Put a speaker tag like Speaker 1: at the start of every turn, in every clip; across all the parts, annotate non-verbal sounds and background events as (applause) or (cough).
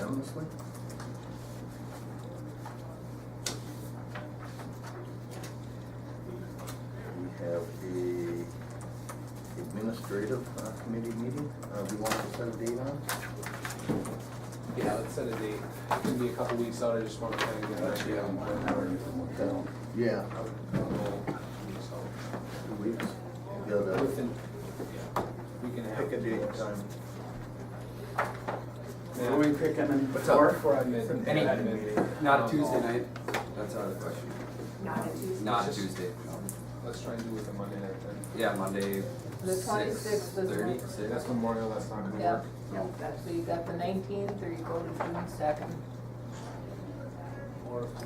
Speaker 1: honestly. We have the administrative uh, committee meeting, uh, we want to set a date on?
Speaker 2: Yeah, let's set a date. It could be a couple weeks out, I just want to kind of get an idea on what hour and what down.
Speaker 1: Yeah.
Speaker 2: So,
Speaker 1: Two weeks, you gotta
Speaker 2: within- yeah, we can have.
Speaker 1: pick a date and time.
Speaker 3: Are we picking them
Speaker 2: What's up?
Speaker 3: before?
Speaker 2: Before I mid-
Speaker 3: Any-
Speaker 2: mid-
Speaker 4: Not a Tuesday night, Oh, that's out of the question.
Speaker 5: Not a Tuesday.
Speaker 4: Not a Tuesday, no.
Speaker 2: Let's try and do it the Monday night then.
Speaker 4: Yeah, Monday,
Speaker 5: The
Speaker 4: six
Speaker 5: 26th is
Speaker 4: thirty,
Speaker 5: what-
Speaker 2: Say,
Speaker 4: six.
Speaker 2: That's Memorial, that's not gonna
Speaker 5: Yeah,
Speaker 2: work.
Speaker 5: yeah, that's, so you got the nineteenth, or you go to June second,
Speaker 2: Or if we,
Speaker 1: I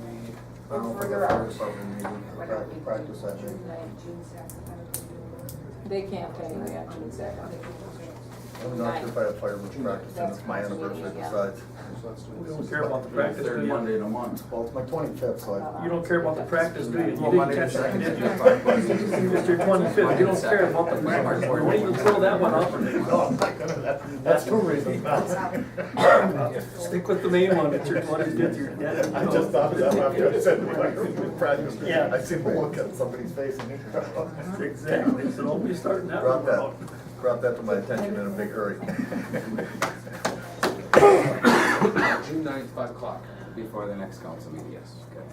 Speaker 1: don't know if I
Speaker 5: Further
Speaker 1: got
Speaker 5: out.
Speaker 1: a department meeting,
Speaker 5: whatever
Speaker 1: pra-
Speaker 5: we
Speaker 1: practice that day.
Speaker 5: June ninth, June second. They can't pay me on June second.
Speaker 1: I'm not sure if I have fireman's practice, and it's my
Speaker 5: That's what we
Speaker 1: anniversary
Speaker 5: need, yeah.
Speaker 1: besides.
Speaker 2: so let's do it.
Speaker 3: We don't care about the practice, do
Speaker 6: Third
Speaker 3: you?
Speaker 6: Monday in a month.
Speaker 1: Well, it's my twenty-fifth, so I.
Speaker 3: You don't care about the practice, do you? You
Speaker 1: Well,
Speaker 3: didn't
Speaker 1: Monday
Speaker 3: catch
Speaker 1: the
Speaker 3: that, did
Speaker 1: 2nd.
Speaker 3: you? It's your twenty-fifth, you don't care about the practice, we're waiting to fill that one
Speaker 1: No,
Speaker 3: up.
Speaker 1: I'm not gonna, that- that's too reasonable.
Speaker 3: Stick with the main one, it's your twenty-fifth, you're dead.
Speaker 1: I just thought of that after I said fireman's practice.
Speaker 3: Yeah.
Speaker 1: I seen the look on somebody's face and. oh,
Speaker 3: Exactly, so don't be starting that
Speaker 1: Brought
Speaker 3: one
Speaker 1: that,
Speaker 3: out.
Speaker 1: brought that to my attention in a big hurry.
Speaker 2: June ninth, five o'clock.
Speaker 4: Before the next council meeting, yes. Okay.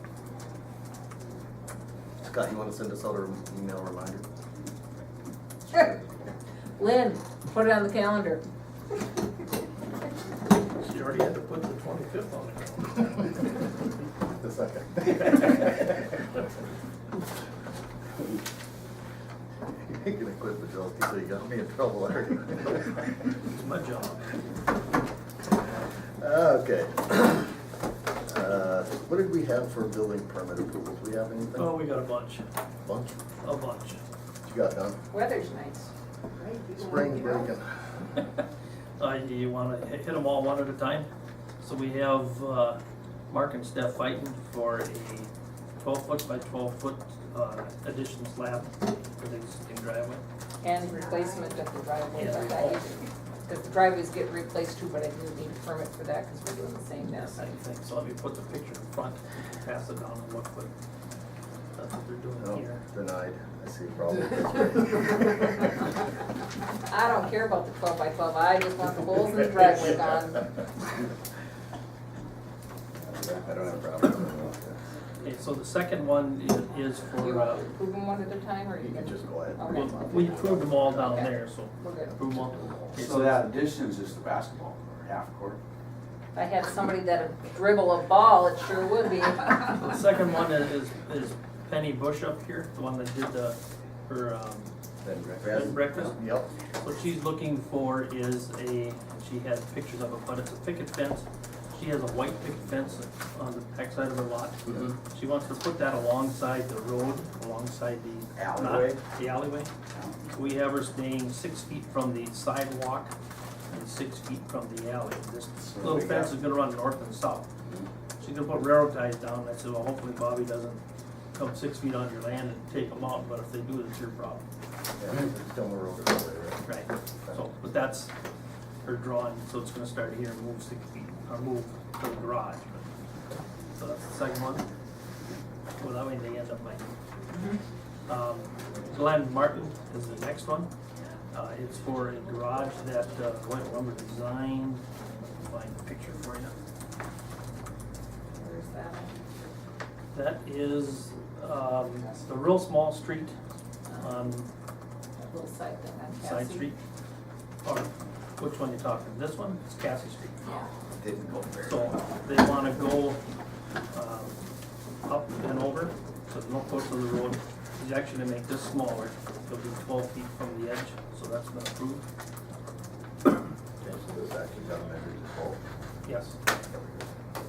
Speaker 1: Scott, you wanna send us out an email reminder?
Speaker 5: Sure. Lynn, put it on the calendar.
Speaker 3: You already had to put the twenty-fifth on it.
Speaker 1: The (laughs) second. You're gonna quit the job, so you got me in trouble already.
Speaker 3: It's my job.
Speaker 1: Ah, Okay. Uh, What did we have for building permit approvals? We have anything?
Speaker 3: Oh, we got a bunch,
Speaker 1: Bunch?
Speaker 3: a bunch.
Speaker 1: What you got done?
Speaker 5: Weather's nice.
Speaker 1: Spring breaking.
Speaker 3: Uh, do you wanna hit them all one at a time? So we have, uh, Mark and Steph fighting for a twelve foot by twelve foot, uh, addition slab for the existing driveway.
Speaker 5: And replacement of the driveway,
Speaker 3: Yeah.
Speaker 5: but that you- the driveways get replaced too, but I didn't need a permit for that, because we're doing the same now.
Speaker 3: Yes, I think, so let me put the picture in front, pass it down and look, but that's what they're
Speaker 1: No,
Speaker 3: doing here.
Speaker 1: Oh. denied. I see a problem.
Speaker 5: I don't care about the twelve by twelve, I just want the holes in the driveway gone.
Speaker 4: I don't have a problem with that.
Speaker 3: Okay, so the second one i- is
Speaker 5: You
Speaker 3: for,
Speaker 5: want
Speaker 3: uh,
Speaker 5: to approve them one at a time, or
Speaker 1: You
Speaker 5: you
Speaker 1: can
Speaker 5: can,
Speaker 1: just go ahead.
Speaker 3: we- we approved them all down there, so
Speaker 5: we're good.
Speaker 3: approve them all. Okay,
Speaker 6: So that addition is just the basketball, court, half court.
Speaker 5: If I had somebody that'd dribble a ball, it sure
Speaker 1: (laughs)
Speaker 5: would be.
Speaker 3: The second one is, is Penny Bush up here, the one that did the, her, um,
Speaker 1: Then
Speaker 3: bed and
Speaker 1: breakfast.
Speaker 3: breakfast.
Speaker 1: Yep.
Speaker 3: What she's looking for is a, she has pictures of it, but it's a picket fence. She has a white picket fence on the backside of her lot.
Speaker 4: Mm-hmm.
Speaker 3: She wants to put that alongside the road, alongside the. not-
Speaker 6: Alleyway.
Speaker 3: The alleyway. We have her staying six feet from the sidewalk and six feet from the alley. This little
Speaker 6: we got- Mm-hmm.
Speaker 3: fence is gonna run north and south. She's gonna put railroad ties down. I said, well, hopefully Bobby doesn't come six feet on your land and take them out, but if they do, it's your problem.
Speaker 1: Yeah, it's down the road all the way, right?
Speaker 3: Right, so, but that's her drawing, so it's gonna start here and move six feet, or move to the garage. but- So that's the second one. Well, that way they end up like. Um, Glenn Martin is the next one. Uh, it's for a garage that uh, White Lumber designed, Let me find the picture for you.
Speaker 5: Where's that?
Speaker 3: That is, um, the real small street on
Speaker 5: That little side thing on
Speaker 3: Uh, Side
Speaker 5: Cassie?
Speaker 3: Street? Or which one you talking, this one, it's Cassie Street.
Speaker 5: Yeah.
Speaker 4: Didn't go very well.
Speaker 3: So they wanna go, um, up and over, so no close to the road. He's actually gonna make this smaller, it'll be twelve feet from the edge, so that's been approved,
Speaker 1: Okay, so this actually got measured to twelve.
Speaker 3: yes.
Speaker 1: There we go.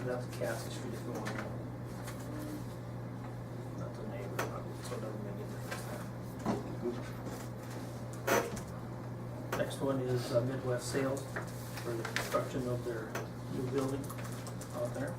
Speaker 3: And that's Cassie Street if you want to know. That's a neighbor, so it doesn't make any difference. Next one is uh, Midwest Sales for the construction of their new building out there.